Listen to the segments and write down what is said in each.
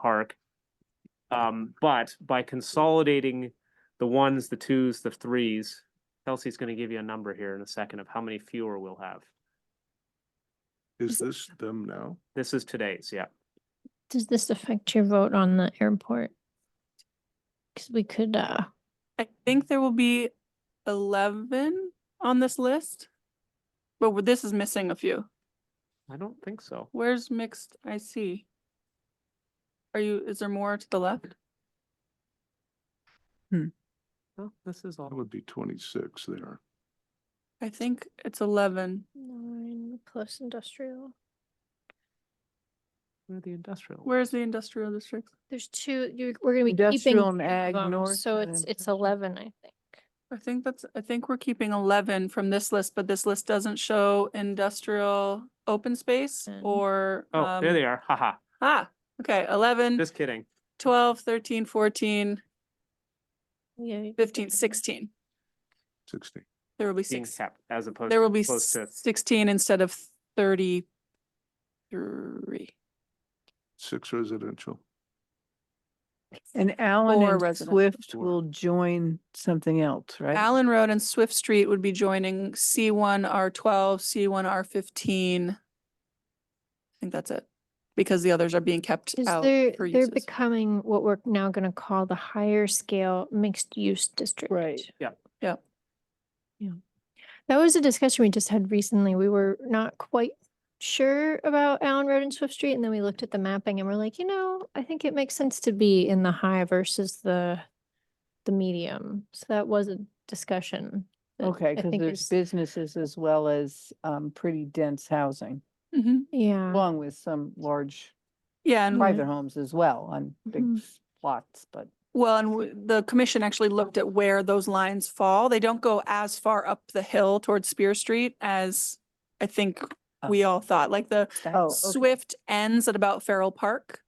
park. Um, but by consolidating the ones, the twos, the threes, Kelsey's gonna give you a number here in a second of how many fewer we'll have. Is this them now? This is today's, yeah. Does this affect your vote on the airport? Because we could, uh, I think there will be eleven on this list. But w- this is missing a few. I don't think so. Where's mixed IC? Are you, is there more to the left? No, this is That all. would be twenty-six there. I think it's eleven. nine plus industrial. Where are the industrial? Where's the industrial district? There's two, you're, we're gonna be keeping. Industrial and two ag of 'em, north So it's, and- it's eleven, I think. I think that's, I think we're keeping eleven from this list, but this list doesn't show industrial open space Mm. or. Oh, there um, they are. Haha, Ah, okay, eleven, just kidding. twelve, thirteen, fourteen, Yeah. you could fifteen, do that. sixteen. Sixteen. There will be Being six. kept as opposed. There will be opposed to- sixteen instead of thirty-three. Six residential. And Allen Or and residential. Swift Or- will join something else, right? Allen Road and Swift Street would be joining C one R twelve, C one R fifteen. I think that's it, because the others are being kept Cause out they're, for they're uses. becoming what we're now gonna call the higher scale mixed use district. Yep. That was a discussion we just had recently. We were not quite sure about Allen Road and Swift Street, and then we looked at the mapping and we're like, you know, I think it makes sense to be in the high versus the the medium. So that was a discussion. that Okay, I because think there's is- businesses as well as um pretty dense housing, Mhm. Yeah, along with some large Yeah, and Mm-hmm. private homes as well on big Mhm. plots, but Well, and w- the commission actually looked at where those lines fall. They don't go as far up the hill towards Spear Street as I think Oh. we all thought, like the oh, okay. Swift ends at about Farrell Park.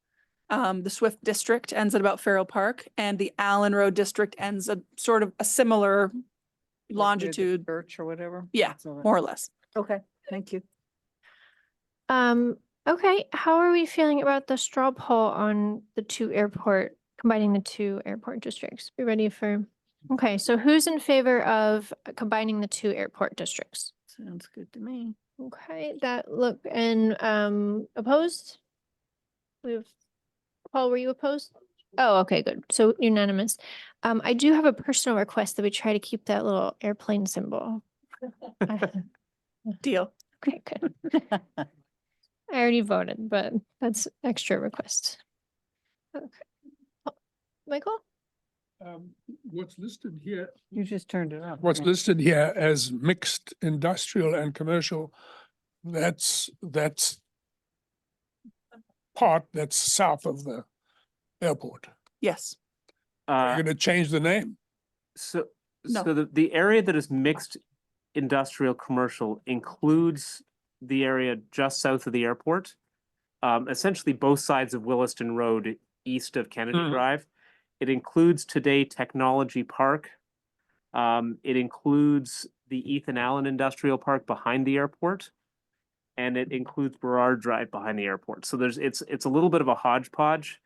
Um, the Swift District ends at about Farrell Park and the Allen Road District ends at sort of a similar Like near the longitude, Church or whatever. Yeah, That's all right. more or less. Okay, thank you. um, okay, how are we feeling about the straw poll on the two airport, combining the two airport districts? We ready for? Okay, so who's in favor of combining the two airport districts? Sounds good to me. Okay, that look, and um opposed? We've, Paul, were you opposed? Oh, okay, good. So unanimous. Um, I do have a personal request that we try to keep that little airplane symbol. I- Deal. Okay, good. I already voted, but that's extra request. Okay. Oh, Michael? um, what's listed here, You just turned it on. what's yeah. listed here as mixed industrial and commercial, that's, that's part that's south of the airport. Yes. Uh, You're gonna change the name. So, No. so the, the area that is mixed industrial, commercial includes the area just south of the airport. Um, essentially both sides of Williston Road, east of Kennedy Mhm. Drive. It includes today Technology Park. Um, it includes the Ethan Allen Industrial Park behind the airport. And it includes Burrard Drive behind the airport. So there's, it's, it's a little bit of a hodgepodge.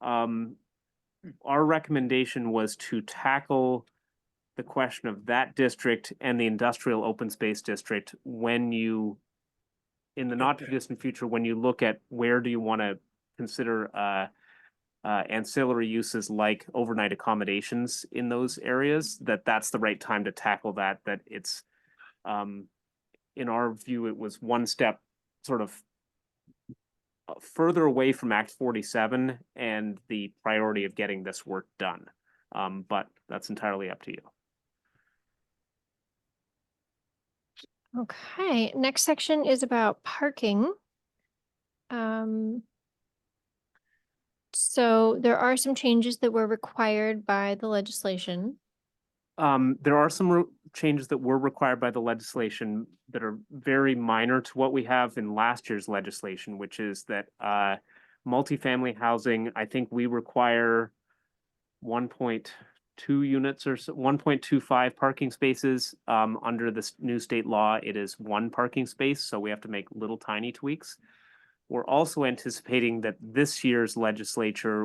Um, our recommendation was to tackle the question of that district and the industrial open space district when you, in the not too Okay. distant future, when you look at where do you want to consider uh, uh, ancillary uses like overnight accommodations in those areas, that that's the right time to tackle that, that it's, um, in our view, it was one step sort of uh, further away from Act forty-seven and the priority of getting this work done. Um, but that's entirely up to you. Okay, next section is about parking. Um. So there are some changes that were required by the legislation. Um, there are some ru- changes that were required by the legislation that are very minor to what we have in last year's legislation, which is that, uh, multifamily housing, I think we require one point two units or one point two five parking spaces. Um, under this new state law, it is one parking space, so we have to make little tiny tweaks. We're also anticipating that this year's legislature